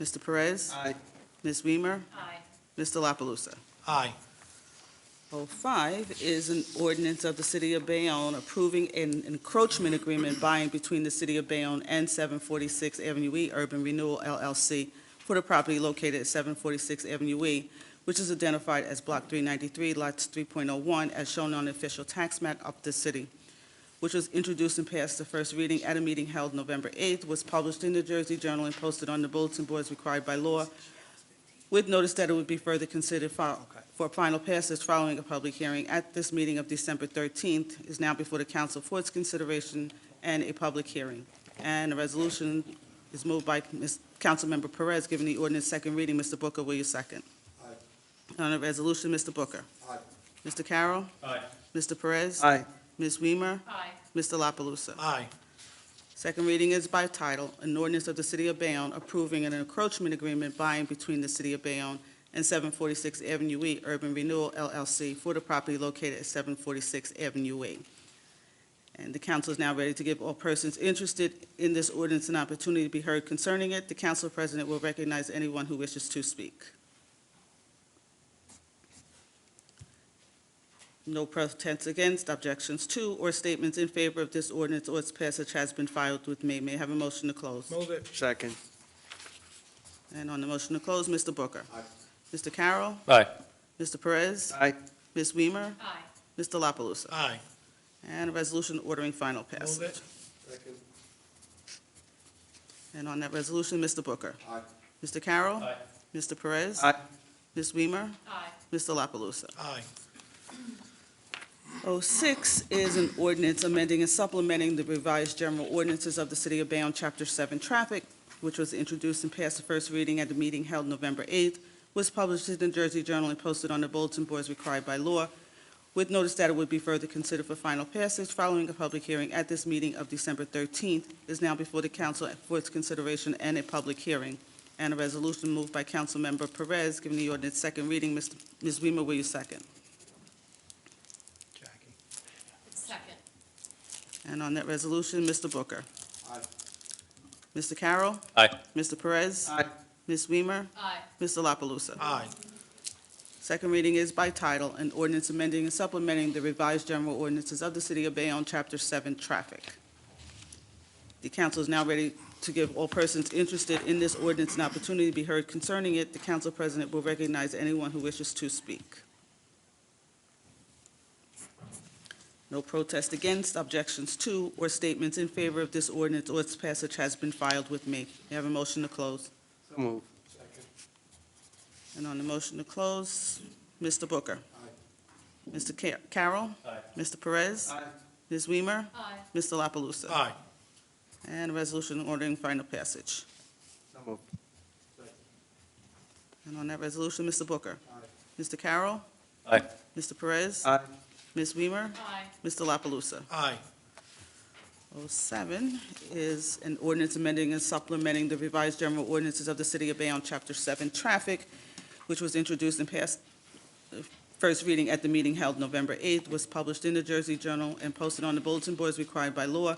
Mr. Perez? Aye. Ms. Weimer? Aye. Mr. La Palusa? Aye. Oh, five is an ordinance of the City of Bayonne approving an encroachment agreement by and between the City of Bayonne and 746 Avenue E Urban Renewal LLC for the property located at 746 Avenue E, which is identified as Block 393, Lots 3.01, as shown on the official tax map of the city, which was introduced and passed the first reading at a meeting held November 8th, was published in the Jersey Journal and posted on the bulletin boards required by law, with notice that it would be further considered fi- for final passage following a public hearing at this meeting of December 13th is now before the council for its consideration and a public hearing. And a resolution is moved by Ms. Councilmember Perez, giving the ordinance second reading. Mr. Booker, will you second? Aye. On the resolution, Mr. Booker. Aye. Mr. Carroll. Aye. Mr. Perez. Aye. Ms. Weimer. Aye. Mr. La Palusa. Aye. Second reading is by title, an ordinance of the City of Bayonne approving an encroachment agreement by and between the City of Bayonne and 746 Avenue E Urban Renewal LLC for the property located at 746 Avenue E. And the council is now ready to give all persons interested in this ordinance an opportunity to be heard concerning it. The council president will recognize anyone who wishes to speak. No protests against, objections to, or statements in favor of this ordinance or its passage has been filed with me. May I have a motion to close? Move it. Second. And on the motion to close, Mr. Booker. Aye. Mr. Carroll. Aye. Mr. Perez. Aye. Ms. Weimer. Aye. Mr. La Palusa. Aye. And a resolution ordering final Move passage. it. Second. And on that resolution, Mr. Booker. Aye. Mr. Carroll. Aye. Mr. Perez. Aye. Ms. Weimer. Aye. Mr. La Palusa. Aye. 06 is an ordinance amending and supplementing the revised general ordinances of the City of Bayonne, Chapter 7 Traffic, which was introduced and passed the first reading at the meeting held November 8th, was published in the Jersey Journal and posted on the bulletin boards required by law, with notice that it would be further considered for final passage following a public hearing at this meeting of December 13th, is now before the council for its consideration and a public hearing. And a resolution moved by Councilmember Perez, giving the ordinance second reading. Mr. Ms. Weimer, will you second? Jackie. Second. And on that resolution, Mr. Booker. Aye. Mr. Carroll. Aye. Mr. Perez. Aye. Ms. Weimer. Aye. Mr. La Palusa. Aye. Second reading is by title, an ordinance amending and supplementing the revised general ordinances of the City of Bayonne, Chapter 7, Traffic. The council is now ready to give all persons interested in this ordinance an opportunity to be heard concerning it. The council president will recognize anyone who wishes to speak. No protest against, objections to, or statements in favor of this ordinance or its passage has been filed with me. May I have a motion to close? So move. And on the motion to close, Mr. Booker. Aye. Mr. Ca- Carroll. Aye. Mr. Perez. Aye. Ms. Weimer. Aye. Mr. La Palusa. Aye. And a resolution ordering final passage. So move. And on that resolution, Mr. Booker. Mr. Carroll. Aye. Mr. Perez. Aye. Ms. Weimer. Aye. Mr. La Palusa. Aye. 07 is an ordinance amending and supplementing the revised general ordinances of the City of Bayonne, Chapter 7, Traffic, which was introduced and passed uh, first reading at the meeting held November 8th, was published in the Jersey Journal and posted on the bulletin boards required by law,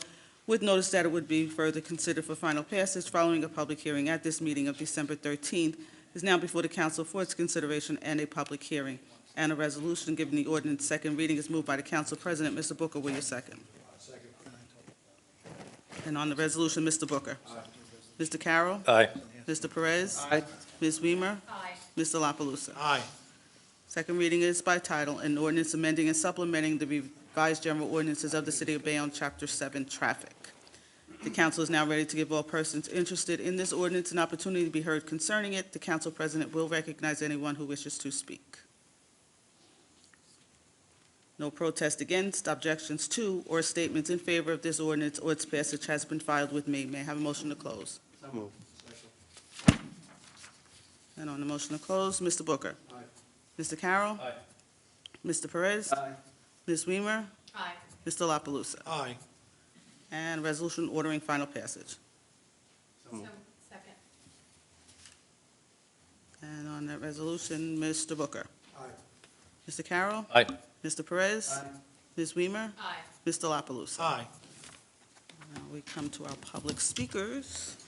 with notice that it would be further considered for final passage following a public hearing at this meeting of December 13th, is now before the council for its consideration and a public hearing. And a resolution giving the ordinance second reading is moved by the council president. Mr. Booker, will you second? And on the resolution, Mr. Booker. Mr. Carroll. Aye. Mr. Perez. Aye. Ms. Weimer. Aye. Mr. La Palusa. Aye. Second reading is by title, an ordinance amending and supplementing the revised general ordinances of the City of Bayonne, Chapter 7, Traffic. The council is now ready to give all persons interested in this ordinance an opportunity to be heard concerning it. The council president will recognize anyone who wishes to speak. No protest against, objections to, or statements in favor of this ordinance or its passage has been filed with me. May I have a motion to close? So move. And on the motion to close, Mr. Booker. Aye. Mr. Carroll. Aye. Mr. Perez. Aye. Ms. Weimer. Aye. Mr. La Palusa. Aye. And resolution ordering final passage. So So, move. second. And on that resolution, Mr. Booker. Aye. Mr. Carroll. Aye. Mr. Perez. Ms. Weimer. Aye. Mr. La Palusa. Aye. Now we come to our public speakers.